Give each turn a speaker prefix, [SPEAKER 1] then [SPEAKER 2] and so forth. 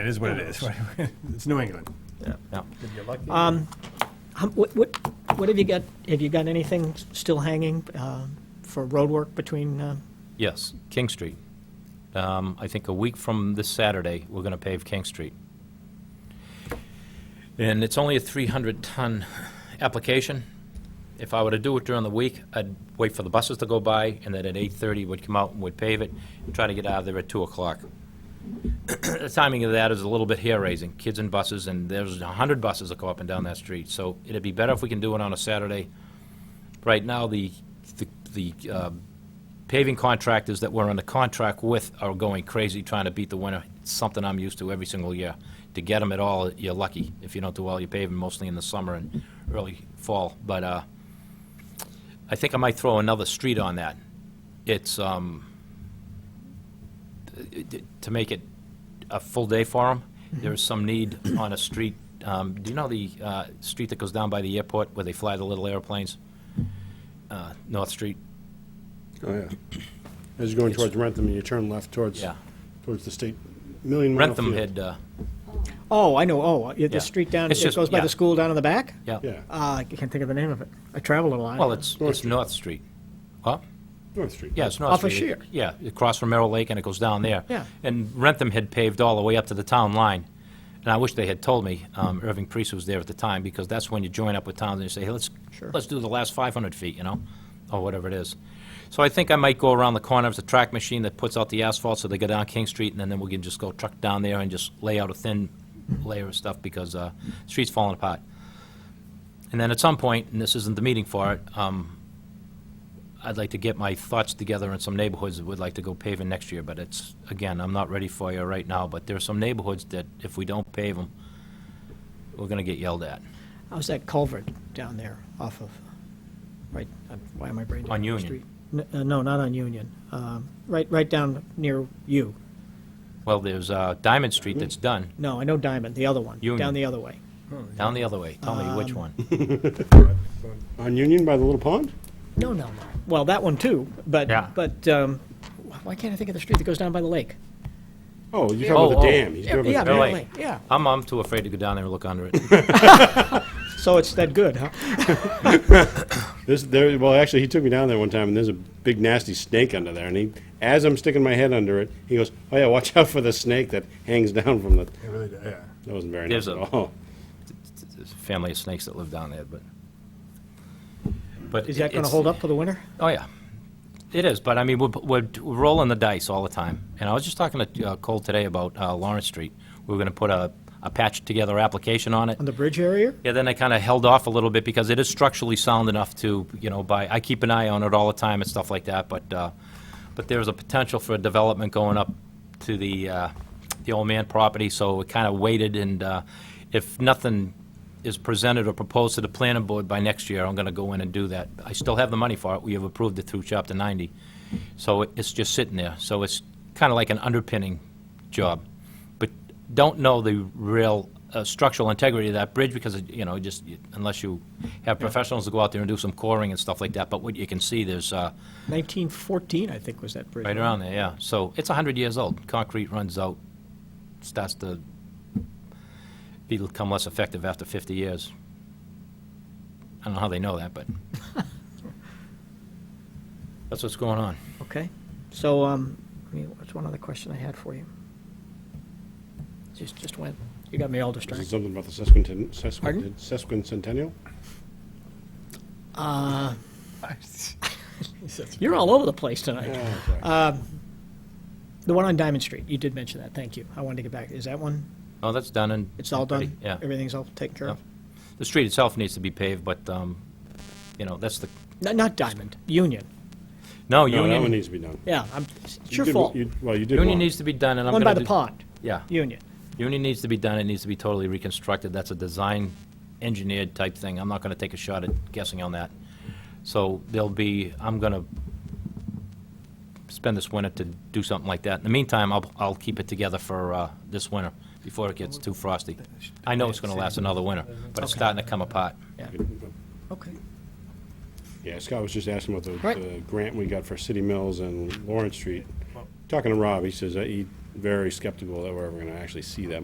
[SPEAKER 1] it is what it is. It's New England.
[SPEAKER 2] Yeah.
[SPEAKER 3] Hum- What, what, what have you got, have you got anything s- still hanging um, for roadwork between, uh,
[SPEAKER 2] Yes, King Street. Um, I think a week from this Saturday, we're going to pave King Street. And it's only a 300-ton application. If I were to do it during the week, I'd wait for the buses to go by, and then at 8:30 would come out and would pave it, and try to get out of there at 2 o'clock. The timing of that is a little bit hair-raising, kids and buses, and there's 100 buses that go up and down that street. So it'd be better if we can do it on a Saturday. Right now, the, the the, uh, paving contractors that we're under contract with are going crazy trying to beat the winter. It's something I'm used to every single year. To get them at all, you're lucky if you don't do all your paving, mostly in the summer and early fall. But uh, I think I might throw another street on that. It's, um, it- it- to make it a full day for them, there is some need on a street, um, do you know the uh, street that goes down by the airport where they fly the little airplanes? Uh, North Street?
[SPEAKER 4] Oh, yeah. As you're going towards Rentham, and you turn left towards,
[SPEAKER 2] Yeah.
[SPEAKER 4] towards the state, Million Mile
[SPEAKER 2] Rentham
[SPEAKER 4] Field.
[SPEAKER 2] had, uh,
[SPEAKER 3] oh, I know, oh, uh,
[SPEAKER 2] Yeah.
[SPEAKER 3] the street down,
[SPEAKER 2] It's
[SPEAKER 3] it
[SPEAKER 2] just-
[SPEAKER 3] goes by
[SPEAKER 2] yeah.
[SPEAKER 3] the school down in the back?
[SPEAKER 2] yeah.
[SPEAKER 4] Yeah,
[SPEAKER 3] Uh, I can't think of the name of it. I traveled a lot.
[SPEAKER 2] Well, it's,
[SPEAKER 4] North
[SPEAKER 2] it's
[SPEAKER 4] Street.
[SPEAKER 2] North Street. Huh?
[SPEAKER 4] North Street.
[SPEAKER 2] Yeah, it's North
[SPEAKER 3] Off
[SPEAKER 2] Street.
[SPEAKER 3] of Shear.
[SPEAKER 2] Yeah, across from Merrill Lake, and it goes down there.
[SPEAKER 3] Yeah.
[SPEAKER 2] And Rentham had paved all the way up to the town line, and I wish they had told me, um,
[SPEAKER 3] Hmm.
[SPEAKER 2] Irving Priest was there at the time, because that's when you join up with towns and you say, hey, let's,
[SPEAKER 3] Sure.
[SPEAKER 2] let's do the last 500 feet, you know, or whatever it is. So I think I might go around the corner, there's a track machine that puts out the asphalt, so they go down King Street, and then we can just go truck down there and just lay out a thin layer of stuff, because uh, the street's falling apart. And then at some point, and this isn't the meeting for it, um, I'd like to get my thoughts together in some neighborhoods that would like to go paving next year, but it's, again, I'm not ready for you right now, but there are some neighborhoods that if we don't pave them, we're gonna get yelled at.
[SPEAKER 3] How's that culvert down there off of, right, uh, why am I brain? dead?
[SPEAKER 2] On Union.
[SPEAKER 3] Street. N- uh, No, not on Union. Um, Right, right down near you.
[SPEAKER 2] Well, there's uh, Diamond Street that's done,
[SPEAKER 3] No, I know Diamond, the other one.
[SPEAKER 2] Union.
[SPEAKER 3] Down the other way.
[SPEAKER 2] down the other way. Tell me which one.
[SPEAKER 4] On Union by the little pond?
[SPEAKER 3] No, no, no. Well, that one too, but,
[SPEAKER 2] Yeah.
[SPEAKER 3] but um, wh- why can't I think of the street that goes down by the lake?
[SPEAKER 4] Oh, you're talking about
[SPEAKER 2] Oh,
[SPEAKER 4] the
[SPEAKER 2] oh.
[SPEAKER 4] dam. You're talking about the
[SPEAKER 3] Yeah,
[SPEAKER 4] dam.
[SPEAKER 3] Merrill
[SPEAKER 2] Really?
[SPEAKER 3] Lake, yeah.
[SPEAKER 2] I'm, I'm too afraid to go down there and look under it.
[SPEAKER 3] So it's that good, huh?
[SPEAKER 4] This, there, well, actually, he took me down there one time, and there's a big nasty snake under there, and he, as I'm sticking my head under it, he goes, oh yeah, watch out for the snake that hangs down from the,
[SPEAKER 1] It really, yeah.
[SPEAKER 4] that wasn't very
[SPEAKER 2] There's
[SPEAKER 4] nice at
[SPEAKER 2] a-
[SPEAKER 4] all.
[SPEAKER 2] There's a family of snakes that live down there, but. but
[SPEAKER 3] Is that going to
[SPEAKER 2] it's-
[SPEAKER 3] hold up for the winter?
[SPEAKER 2] Oh, yeah. It is, but I mean, we're, we're we're rolling the dice all the time. And I was just talking to uh, Cole today about uh, Lawrence Street. We were going to put a, a patch together application on it.
[SPEAKER 3] On the bridge area?
[SPEAKER 2] Yeah, then I kind of held off a little bit because it is structurally sound enough to, you know, by, I keep an eye on it all the time and stuff like that, but, uh, but there's a potential for a development going up to the, uh, the old man property, so it kind of waited, and, uh, if nothing is presented or proposed to the planning board by next year, I'm gonna go in and do that. I still have the money for it, we have approved it through chapter ninety, so it- it's just sitting there, so it's kind of like an underpinning job. But don't know the real uh, structural integrity of that bridge because, it- you know, just, unless you have professionals to go out there and do some coring and stuff like that. But what you can see, there's, uh,
[SPEAKER 3] 1914, I think, was that bridge.
[SPEAKER 2] right around there, yeah. So it's 100 years old. Concrete runs out, starts to become less effective after 50 years. I don't know how they know that, but that's what's going on.
[SPEAKER 3] Okay. So, um, I mean, what's one other question I had for you? Just, just went, you got me all
[SPEAKER 4] Is it
[SPEAKER 3] distracted.
[SPEAKER 4] something about the sesquicent-
[SPEAKER 3] Pardon?
[SPEAKER 4] sesquicent- sesquicentennial?
[SPEAKER 3] You're all over the place tonight. Um,
[SPEAKER 4] Oh, sorry.
[SPEAKER 3] The one on Diamond Street, you did mention that, thank you. I wanted to get back, is that one,
[SPEAKER 2] Oh, that's done and...
[SPEAKER 3] it's all done?
[SPEAKER 2] Yeah.
[SPEAKER 3] Everything's all taken care of?
[SPEAKER 2] The street itself needs to be paved, but, um, you know, that's the,
[SPEAKER 3] No, Not Diamond, Union.
[SPEAKER 2] no,
[SPEAKER 4] No, that one
[SPEAKER 2] Union,
[SPEAKER 4] needs to be done.
[SPEAKER 3] Yeah, I'm, it's
[SPEAKER 4] You
[SPEAKER 3] your
[SPEAKER 4] did wa-
[SPEAKER 3] fault.
[SPEAKER 4] you- Well, you did
[SPEAKER 2] Union
[SPEAKER 4] one.
[SPEAKER 2] needs to be done, and I'm
[SPEAKER 3] One
[SPEAKER 2] gonna
[SPEAKER 3] by the
[SPEAKER 2] do-
[SPEAKER 3] pond,
[SPEAKER 2] Yeah,
[SPEAKER 3] Union.
[SPEAKER 2] Union needs to be done, it needs to be totally reconstructed, that's a design engineered type thing, I'm not gonna take a shot at guessing on that. So there'll be, I'm gonna spend this winter to do something like that. In the meantime, I'll, I'll keep it together for, uh, this winter, before it gets too frosty. I know it's gonna last another winter, but it's starting to come apart.
[SPEAKER 3] Okay.
[SPEAKER 4] Yeah, Scott was just asking about
[SPEAKER 3] Right.
[SPEAKER 4] the, the grant we got for City Mills and Lawrence Street. Talking to Rob, he says that he's very skeptical that we're ever gonna actually see that